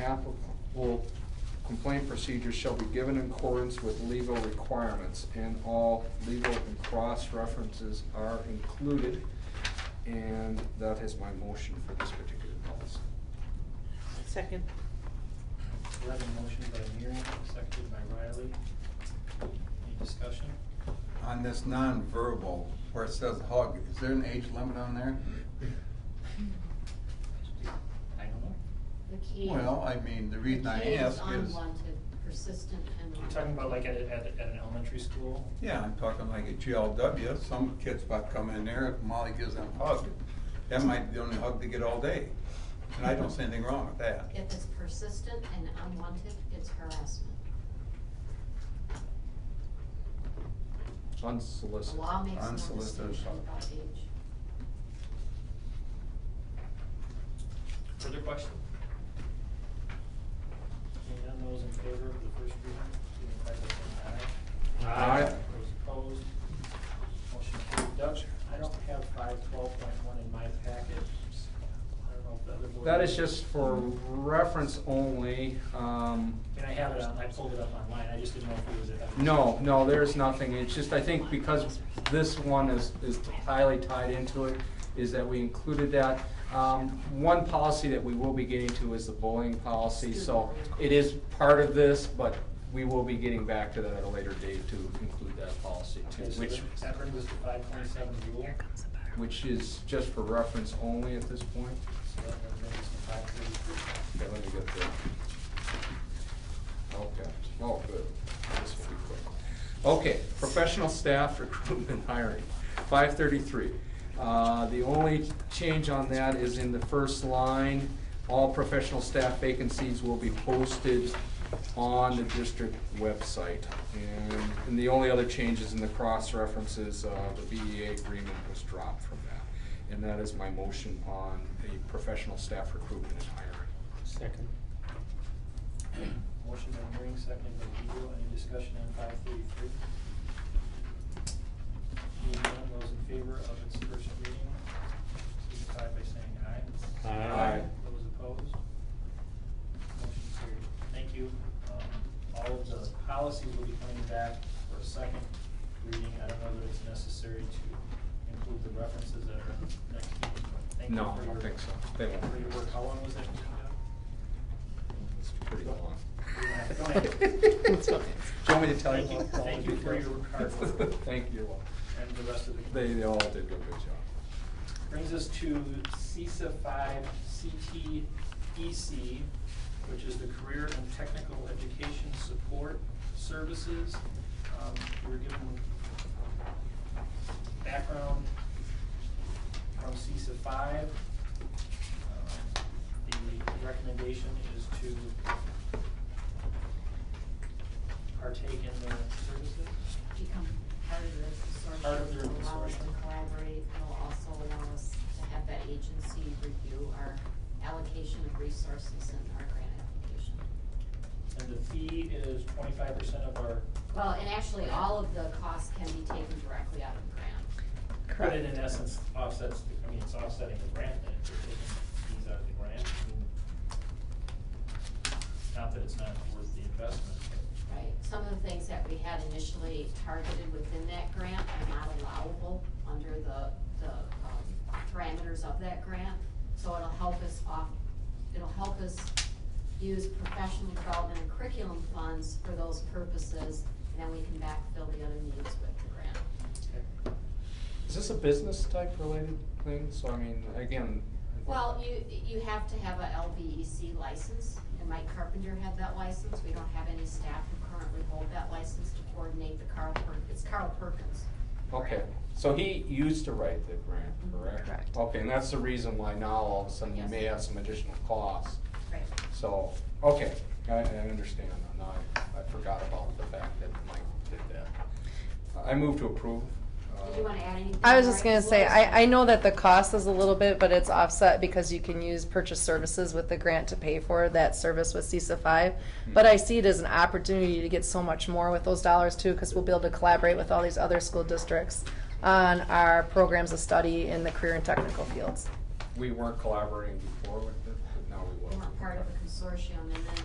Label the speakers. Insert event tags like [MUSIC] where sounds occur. Speaker 1: applicable complaint procedures shall be given in accordance with legal requirements, and all legal and cross references are included. And that is my motion for this particular policy.
Speaker 2: Second.
Speaker 3: We have a motion by Miriam, seconded by Riley. Any discussion?
Speaker 4: On this nonverbal, where it says hug, is there an age limit on there?
Speaker 3: I don't know.
Speaker 5: The key.
Speaker 4: Well, I mean, the reason I ask
Speaker 5: The key is
Speaker 4: is,
Speaker 5: unwanted, persistent and.
Speaker 3: You're talking about like at, a- at, a- at an elementary school?
Speaker 4: yeah, I'm talking like a GLW, some kid's about to come in there, Molly gives them a hug. That might be the only hug they get all day, and I don't see anything wrong with that.
Speaker 5: If it's persistent and unwanted, it's harassment. The
Speaker 1: Unsolicited.
Speaker 5: law makes no
Speaker 4: Unsolicited
Speaker 5: distinction
Speaker 4: assault.
Speaker 5: about age.
Speaker 3: Further question? Seeing none, those in favor of the first reading, signify by saying aye.
Speaker 1: Aye.
Speaker 3: Those opposed, motion carried. Doug, I don't have five twelve point one in my packet. I don't know if the other board.
Speaker 1: That is just for reference only. Um,
Speaker 3: And I have it on, I pulled it up online, I just didn't know if it was at.
Speaker 1: No, no, there's nothing. It's just, I think because this one is, is highly tied into it, is that we included that. Um, one policy that we will be getting to is the bullying policy, so it is part of this, but we will be getting back to that at a later date to include that policy too,
Speaker 3: Okay, so
Speaker 1: which,
Speaker 3: that- that brings us to five twenty-seven rule. So
Speaker 1: which is just for reference only at this point.
Speaker 3: that brings us to five thirty-three.
Speaker 1: Okay, let me get the, okay, oh, good, this will be quick. Okay, professional staff recruitment [LAUGHS] hiring, five thirty-three. Uh, the only change on that is in the first line, all professional staff vacancies will be posted on the district website. And, and the only other change is in the cross references, uh, the BEA agreement was dropped from that. And that is my motion on the professional staff recruitment and hiring.
Speaker 6: Second.
Speaker 3: Motion by Waring, seconded by Eagle. Any discussion on five thirty-three? Seeing none, those in favor of its first reading, signify by saying aye.
Speaker 6: Aye.
Speaker 1: Aye.
Speaker 3: Those opposed? Motion carried. Thank you. Um, All of the policies will be coming back for a second reading. I don't know that it's necessary to include the references that are next meeting. but Thank you
Speaker 1: No,
Speaker 3: for
Speaker 1: I don't
Speaker 3: your-
Speaker 1: think so. They won't.
Speaker 3: For your work. How long was that meeting, Doug?
Speaker 1: It's pretty long.
Speaker 3: Go ahead.
Speaker 6: It's
Speaker 1: Do you
Speaker 6: fine.
Speaker 1: want me to tell you?
Speaker 3: Thank you-
Speaker 1: about all
Speaker 3: thank
Speaker 1: the
Speaker 3: you for your
Speaker 1: details?
Speaker 3: hard
Speaker 1: [LAUGHS]
Speaker 3: work.
Speaker 1: Thank you.
Speaker 3: and the rest of the.
Speaker 1: They, they all did a good job.
Speaker 3: Brings us to CISA five CTEC, which is the Career and Technical Education Support Services. Um, We're given background from CISA five. Um, The recommendation is to partake in their services.
Speaker 5: Become part of the consortium.
Speaker 3: Part of their
Speaker 5: will Allow us to
Speaker 3: consortium.
Speaker 5: collaborate, it'll also allow us to have that agency review our allocation of resources and our grant application.
Speaker 3: And the fee is twenty-five percent of our,
Speaker 5: Well, and actually, all of the costs can be taken directly out of the grant.
Speaker 3: but it in essence offsets, the- I mean, it's offsetting the grant, then if we're taking fees out of the grant. I mean, Not that it's not worth the investment, but
Speaker 5: Right, some of the things that we had initially targeted within that grant are not allowable under the, the, um, parameters of that grant. So it'll help us off, it'll help us use professional development and curriculum funds for those purposes, and then we can backfill the other needs with the grant.
Speaker 3: okay.
Speaker 1: Is this a business type related thing? So I mean, again.
Speaker 5: Well, you, you have to have a LBEC license, and Mike Carpenter had that license, we don't have any staff who currently hold that license to coordinate the Carl Per, it's Carl Perkins.
Speaker 1: Okay,
Speaker 5: grant.
Speaker 1: so he used to write the grant, correct?
Speaker 7: Correct.
Speaker 1: Okay, and that's the reason why now all of a sudden you may have some additional costs.
Speaker 5: Right.
Speaker 1: So, okay, I, I understand. Now I, I forgot about the fact that Mike did that. I move to approve.
Speaker 5: Did you wanna add anything?
Speaker 7: I was just
Speaker 5: Lori?
Speaker 7: gonna say,
Speaker 5: Lori's-
Speaker 7: I, I know that the cost is a little bit, but it's offset because you can use purchase services with the grant to pay for that service with CISA five. But I see it as an opportunity to get so much more with those dollars too, because we'll be able to collaborate with all these other school districts on our programs of study in the career and technical fields.
Speaker 1: Uh, We weren't collaborating before with it, but now we will.
Speaker 5: They weren't part of a consortium, and then